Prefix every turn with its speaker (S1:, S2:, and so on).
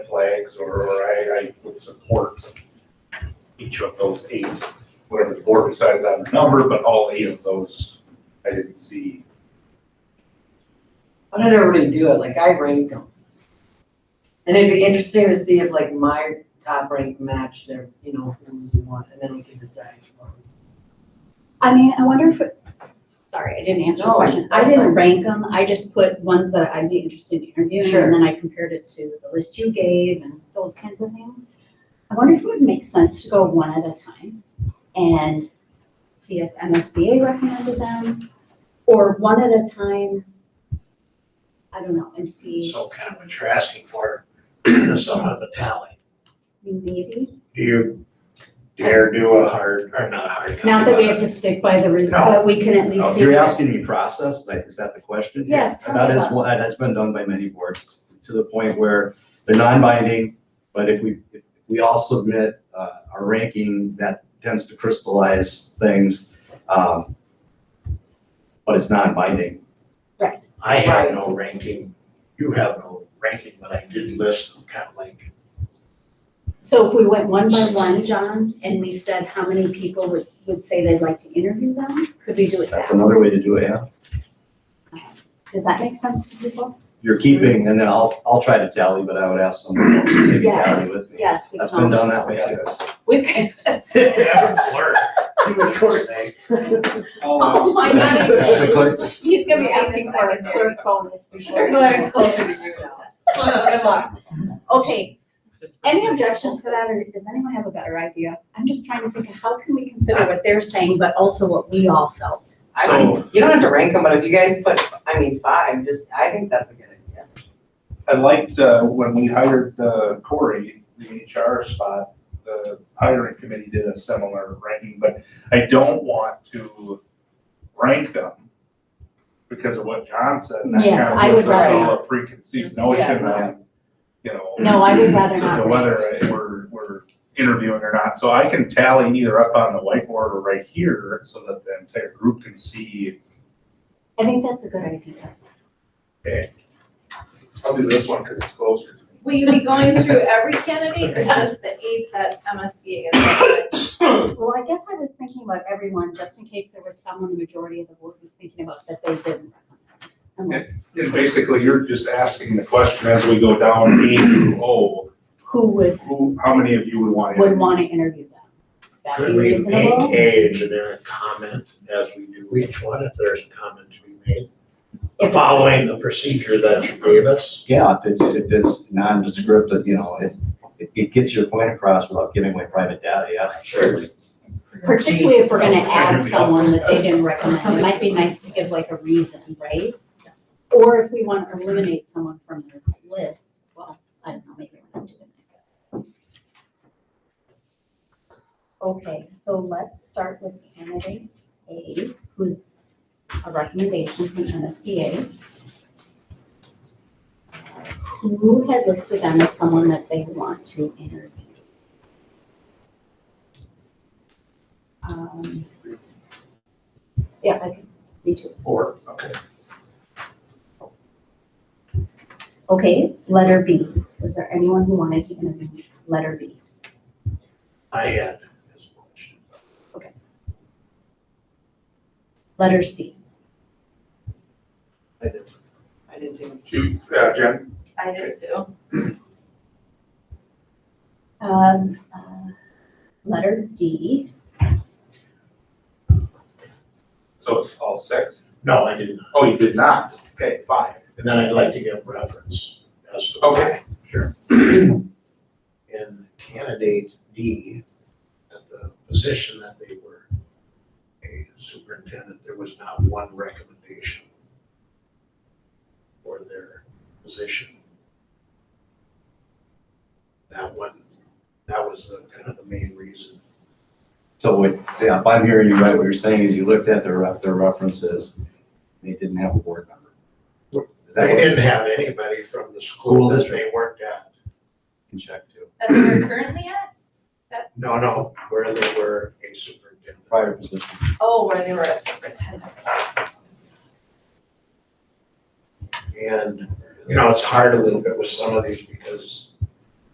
S1: flags or I, I would support each of those eight, whatever the board decides on the number, but all eight of those, I didn't see.
S2: Why did everybody do it? Like I ranked them. And it'd be interesting to see if like my top rank matched their, you know, who's what, and then we could decide.
S3: I mean, I wonder if, it- sorry, I didn't answer the
S2: No,
S3: question. I
S2: that's
S3: didn't
S2: fine.
S3: rank them, I just put ones that I'd be interested in interviewing,
S2: Sure.
S3: and then I compared it to the list you gave and those kinds of things. I wonder if it would make sense to go one at a time and see if MSBA recommended them, or one at a time. I don't know, and see,
S4: So kind of what you're asking for, somewhat of a tally.
S3: maybe,
S4: Do you dare do a hard, or not a hard copy?
S3: not that we
S4: but
S3: have to stick by the result,
S4: No.
S3: but we can at least
S5: Oh,
S3: see.
S5: You're
S3: what-
S5: asking me process, like, is that the question? here?
S3: Yes, tell
S5: And That
S3: me
S5: is,
S3: about it.
S5: one- that has been done by many boards, to the point where they're non-binding, but if we, if we all submit uh, our ranking, that tends to crystallize things. um, But it's non-binding.
S4: I have
S2: Right.
S4: no ranking, you have no ranking, but I did list them kind of like,
S3: So if we went one by one, John, and we said how many people would, would say they'd like to interview them, could we do it that?
S5: That's another way to do it, yeah.
S3: Does that make sense to people?
S5: You're keeping, and then I'll, I'll try to tally, but I would ask someone else to maybe tally
S3: Yes,
S5: with me.
S3: yes. we
S5: That's
S3: can.
S5: been done that way too.
S3: We-
S4: yeah, I'm blurred. You would say,
S3: Oh my
S5: That's
S3: God.
S5: a clear-
S3: He's gonna be
S2: Yes,
S3: asking
S2: I
S3: for a
S2: can
S3: clerk bonus before.
S2: It's closer to you now.
S3: Good luck. Okay, any objections to that, or does anyone have a better idea? I'm just trying to think of how can we consider what they're saying, but also what we all felt.
S2: I
S1: So-
S2: mean, you don't have to rank them, but if you guys put, I mean, five, just, I think that's a good idea.
S1: I liked, uh, when we hired, uh, Corey, the HR spot, the hiring committee did a similar ranking, but I don't want to rank them because of what John said. and that
S3: Yes,
S1: kind of
S3: I
S1: gives
S3: would
S1: us
S3: rather
S1: all
S2: not.
S1: A preconceived
S2: Just-
S1: notion
S2: yeah.
S1: of, you know.
S3: No, I would rather
S1: So
S3: not.
S1: to whether we're, we're interviewing or not, so I can tally either up on the whiteboard or right here, so that the entire group can see,
S3: I think that's a good idea.
S1: I'll do this one because it's closer. to me.
S6: Will you be going through every candidate or just the eight that MSBA is?
S3: Well, I guess I was thinking about everyone, just in case there was someone, the majority of the board was thinking about that they didn't. recommend, Unless,
S1: And basically, you're just asking the question as we go down A through O,
S3: who would,
S1: who, how many of you would want
S3: would
S1: to?
S3: want to interview them? That be
S4: could we make
S3: reasonable?
S4: a generic comment as we do each one, if there's a comment to be made?
S3: If-
S4: Following the procedure that you gave us?
S5: Yeah, if it's, if it's nondescript, you know, it, it- it gets your point across without giving away private data, yeah.
S4: Sure.
S3: Particularly if we're going to add
S4: Maybe.
S3: someone that they didn't recommend, it might be nice to give like a reason, right? Or if we want to eliminate someone from the list, well, I don't know, maybe we're not doing that. Okay, so let's start with candidate A, who's a recommendation from MSBA. Who had listed them as someone that they want to interview? Um, Yeah, I can, me too.
S1: Four, okay.
S3: Okay, letter B. Was there anyone who wanted to interview letter B?
S4: I had as much.
S3: Letter C.
S5: I did.
S2: I didn't do it.
S1: Two, uh, Jen?
S6: I did too.
S3: Um, uh, Letter D.
S1: So it's all six?
S4: No, I did not.
S1: Oh, you did not? Okay, five.
S4: And then I'd like to get reference as to.
S1: Okay,
S4: sure. In candidate D, at the position that they were a superintendent, there was not one recommendation for their position. That one, that was the- kind of the main reason.
S5: So what, yeah, if I'm hearing you right, what you're saying is you looked at their, ref- their references, they didn't have a board member. Is that
S4: They
S5: what you
S4: didn't have anybody from the school that they worked at.
S5: can check too?
S6: That's where we're currently at?
S4: No, no, where they were a superintendent.
S5: Prior position.
S6: Oh, where they were a superintendent.
S4: And, you know, it's hard a little bit with some of these because